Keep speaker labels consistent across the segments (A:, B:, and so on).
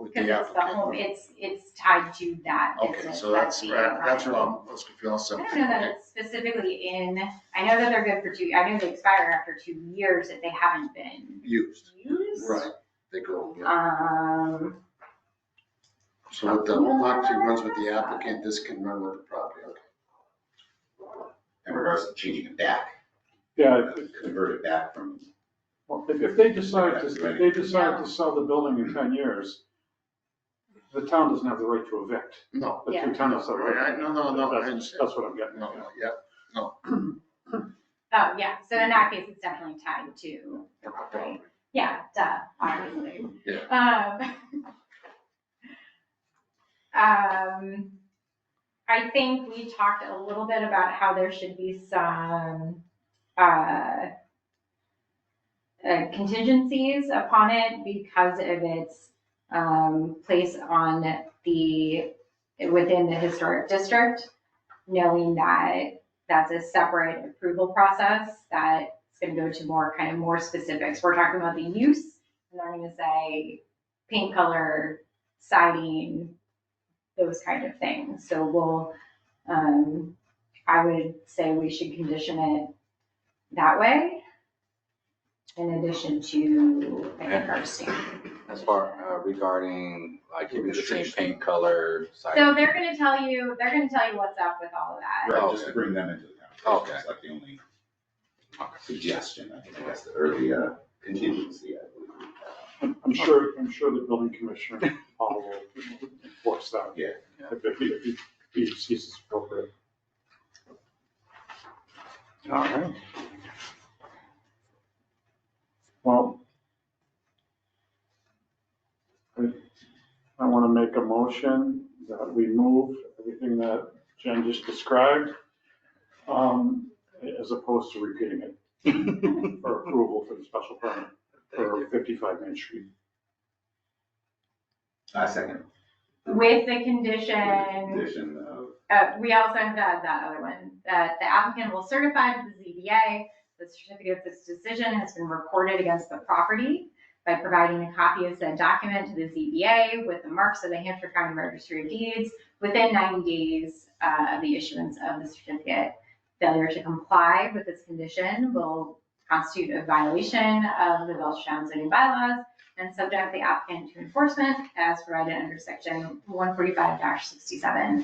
A: with the
B: Because it's the home,
A: applicant.
B: it's, it's tied to that
A: Okay,
B: business.
A: so that's,
B: the
A: right, that's
B: enterprise.
A: what I'm, let's confused.
B: I don't know that it's specifically in, I know that they're good for two, I know they expire after two years if they haven't been
A: Used,
B: used.
A: right, they go, yeah.
B: Um,
A: So with the home occupancy runs with the applicant, this can run with the property, okay.
C: in regards to changing it back,
D: Yeah, if-
C: convert it back from,
D: if, if they decide to, if they decide to sell the building in ten years, the town doesn't have the right to evict.
A: No.
D: The
B: Yeah.
D: two towns have the right.
A: Right, no, no, no, I
D: That's,
A: understand.
D: that's what I'm getting
A: No,
D: at.
A: no,
D: yeah.
A: yeah,
B: oh, yeah, so in that case, it's definitely tied to,
A: the property.
B: yeah, duh, obviously.
A: Yeah.
B: Um, um, I think we talked a little bit about how there should be some, uh, uh, contingencies upon it because of its, um, place on the, within the historic district, knowing that that's a separate approval process that's gonna go to more, kind of more specifics. We're talking about the use, and they're gonna say, paint color, siding, those kind of things. So we'll, um, I would say we should condition it that way. In addition to, I think, our standard.
E: As far uh, regarding, like, keeping the same paint color,
B: So
E: site,
B: they're gonna tell you, they're gonna tell you what's up with all of that.
C: right, just to bring them into the conversation,
E: Okay.
C: it's like the only suggestion, I think, I guess, or the uh, contingency. I believe.
D: I'm I'm sure, I'm sure the building commissioner, Paul, will enforce that.
C: Yeah.
D: If, if, he- if he- he sees it's appropriate. All right. Well. I, I wanna make a motion that we move everything that Jen just described, um, as opposed to repeating it for approval for the special permit for fifty-five Main Street.
C: Uh, second
B: With the condition,
C: condition of,
B: uh, we also have that, that other one, that the applicant will certify to the ZBA the certificate of this decision has been recorded against the property by providing a copy of said document to the ZBA with the marks of the Hampshire County Registry of Deeds within 90 days uh, of the issuance of the certificate. Failure to comply with this condition will constitute a violation of the Belchtown zoning bylaws and subject the applicant to enforcement as provided under section 145-67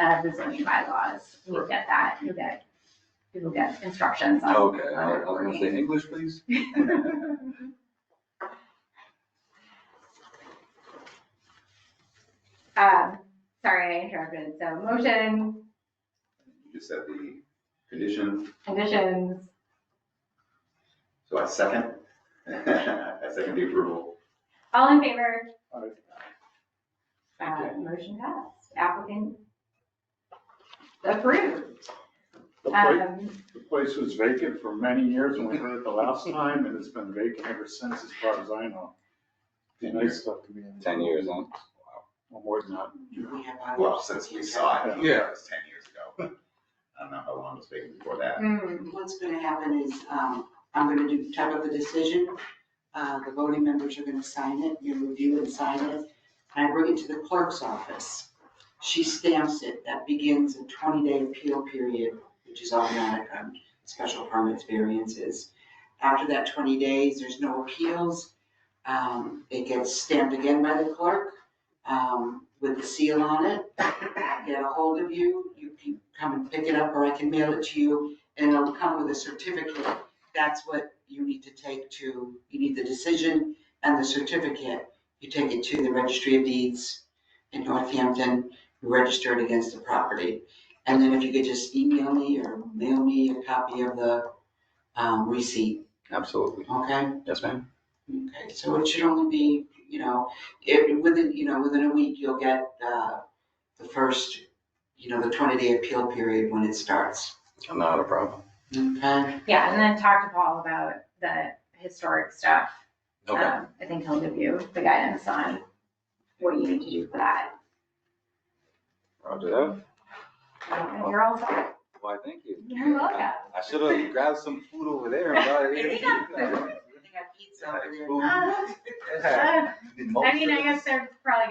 B: of the zoning bylaws. You get that, you get, people get instructions on
E: Oh, okay, I I was gonna say English, please?
B: Um, sorry, I interrupted. So motion,
C: you just said the condition,
B: conditions,
C: so I second, I second the approval.
B: all in favor?
D: Aye.
B: Uh, motion passed. Applicant approved.
D: The place,
B: Um,
D: the place was vacant for many years when we heard it the last time, and it's been vacant ever since, as far as I know. And I still,
E: Ten years, huh?
D: more than that.
C: Well, since we saw it,
D: Yeah.
C: it was ten years ago, but I don't know how long it was taken before that.
B: mm,
F: What's gonna happen is, um, I'm gonna do, type up a decision, uh, the voting members are gonna sign it, you review and sign it, and I bring it to the clerk's office. She stamps it, that begins a twenty-day appeal period, which is automatic on special permits variances. After that twenty days, there's no appeals, um, it gets stamped again by the clerk, um, with the seal on it. I Get a hold of you, you can come and pick it up, or I can mail it to you, and it'll come with a certificate. That's what you need to take to, you need the decision and the certificate. You take it to the Registry of Deeds in Northampton, you register it against the property. And then if you could just email me or mail me a copy of the um, receipt,
E: Absolutely.
F: okay?
E: Yes, ma'am?
F: Okay, so it should only be, you know, it, within, you know, within a week, you'll get, uh, the first, you know, the twenty-day appeal period when it starts,
E: Not a problem.
F: okay?
B: yeah, and then talk to Paul about the historic stuff.
E: Okay,
B: Um, I think he'll give you the guidance on what you need to do for that.
E: roger that.
B: Um, You're all set.
E: Why, thank you.
B: You're welcome.
E: I should have grabbed some food over there and brought it
F: They got food.
E: here.
F: They got pizza over there.
E: Food.
B: Uh, I mean, I guess they're probably